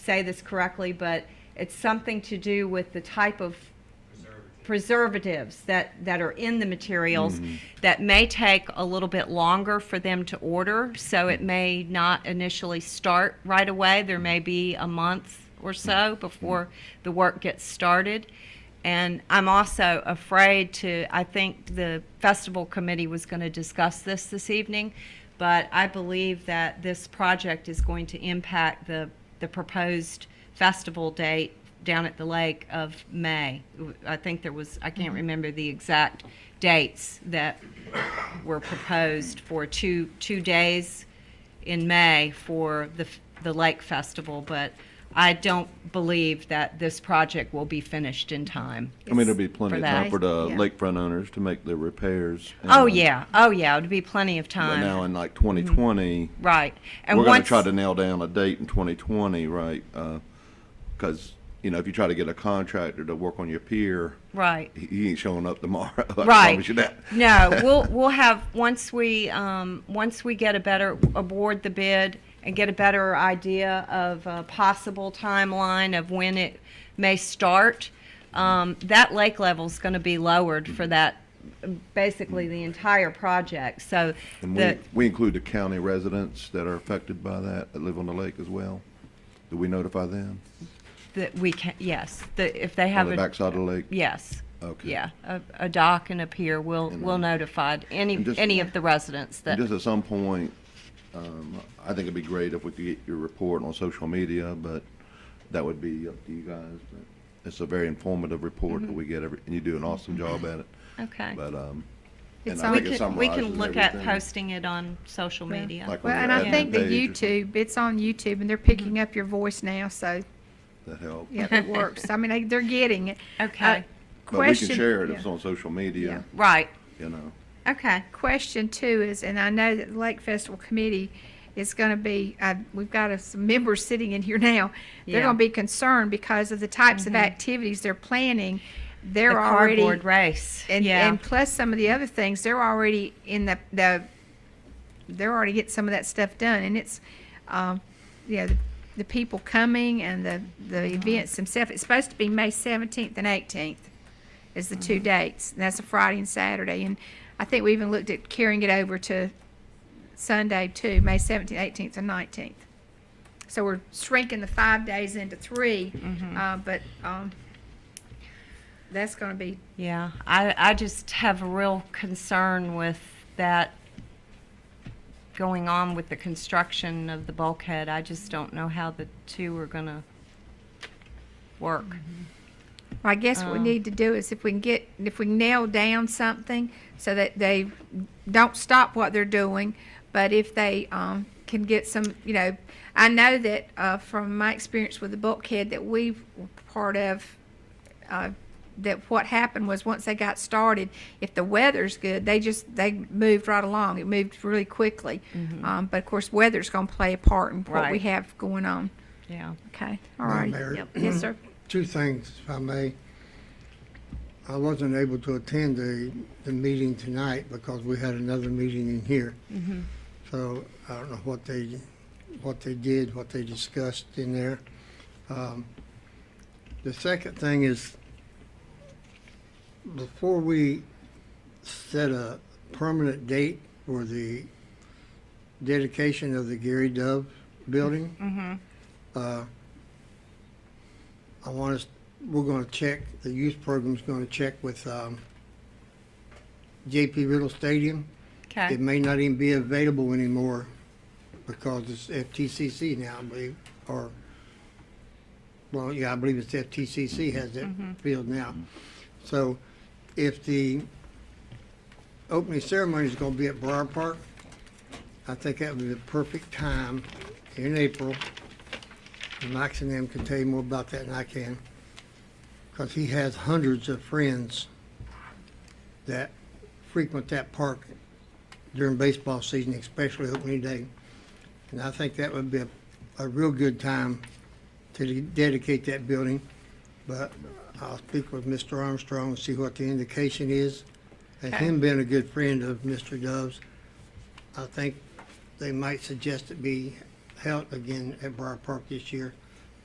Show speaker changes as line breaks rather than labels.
say this correctly, but it's something to do with the type of preservatives that, that are in the materials that may take a little bit longer for them to order. So it may not initially start right away. There may be a month or so before the work gets started. And I'm also afraid to, I think the festival committee was going to discuss this this evening, but I believe that this project is going to impact the, the proposed festival date down at the lake of May. I think there was, I can't remember the exact dates that were proposed for two, two days in May for the, f- the Lake Festival, but I don't believe that this project will be finished in time.
I mean, there'll be plenty of
that.
time for the
Yeah.
lakefront owners to make their repairs.
Oh,
and-
yeah, oh, yeah, it'll be plenty of
But now
time,
in like 2020,
right. And
we're going to
once-
try to nail down a date in 2020, right? Because, you know, if you try to get a contractor to work on your pier,
Right.
he- he ain't showing up tomorrow. I
Right.
promise you that.
No, we'll, we'll have, once we, um, once we get a better, award the bid and get a better idea of a possible timeline of when it may start, um, that lake level's gonna be lowered for that, basically the entire project, so
And
the,
we, we include the county residents that are affected by that, that live on the lake as well. Do we notify them
that we can, yes, the, if they
on
have
the
a.
backside of the lake?
Yes.
Okay.
Yeah, a, a dock and a pier, we'll, we'll notify any,
And just-
any of the residents that,
Just at some point, um, I think it'd be great if we could get your report on social media, but that would be up to you guys. But It's a very informative report
Mm-hmm.
that we get every, and you do an awesome job at it,
okay.
but, um. and
It's
I
on-
We
think it
can, we
summarizes
can look at
everything.
posting it on social
Yeah.
media.
Like
Well,
on
and
your
I
admin
think the
page or something.
YouTube, it's on YouTube, and they're picking
Mm-hmm.
up your voice now, so,
That help.
yeah, it works. I mean, they- they're getting it. Uh,
Okay,
But we can
Question-
share it
yeah.
if it's on social media,
Uh, right,
you know.
okay,
Question two is, and I know that the Lake Festival Committee is gonna be, uh, we've got uh, some members sitting in here now. They're
Yeah. Mm-hmm.
gonna be concerned because of the types of activities they're planning.
the
They're already.
cardboard race,
And,
yeah,
and plus some of the other things, they're already in the, the, they're already getting some of that stuff done, and it's, um, you know, the, the people coming and the, the events themselves, it's supposed to be May seventeenth and eighteenth is the two dates, and that's a Friday and Saturday, and I think we even looked at carrying it over to Sunday too, May seventeenth, eighteenth, and nineteenth. So we're shrinking the five days into three, uh, but, um, that's gonna be
yeah. I, I just have a real concern with that going on with the construction of the bulkhead. I just don't know how the two are gonna work.
Well, I guess what we
Um,
need to do is if we can get, if we nail down something so that they don't stop what they're doing, but if they, um, can get some, you know, I know that, uh, from my experience with the bulkhead that we were part of, uh, that what happened was once they got started, if the weather's good, they just, they moved right along. It moved really quickly. Um, but of course, weather's gonna play a part in what we
Mm-hmm. Right.
have going on.
Yeah,
Okay, all right.
Mayor.
Yep. Yes, sir.
Two things, if I may. I wasn't able to attend the, the meeting tonight because we had another meeting in here. So I don't know what they, what they did, what they discussed in there. Um, The second thing is, before we set a permanent date for the dedication of the Gary Dove building. uh, I want us, we're gonna check, the youth program's gonna check with, um, JP Riddle Stadium.
okay.
It may not even be available anymore because it's FTCC now, I believe, or, well, yeah, I believe it's FTCC has that field now. So if the opening ceremony is gonna be at Briar Park, I think that would be the perfect time in April. Max and them can tell you more about that than I can, because he has hundreds of friends that frequent that park during baseball season, especially opening day. And I think that would be a, a real good time to de- dedicate that building. But I'll speak with Mr. Armstrong and see what the indication is. And him being a good friend of Mr. Dove's, I think they might suggest it be held again at Briar Park this year.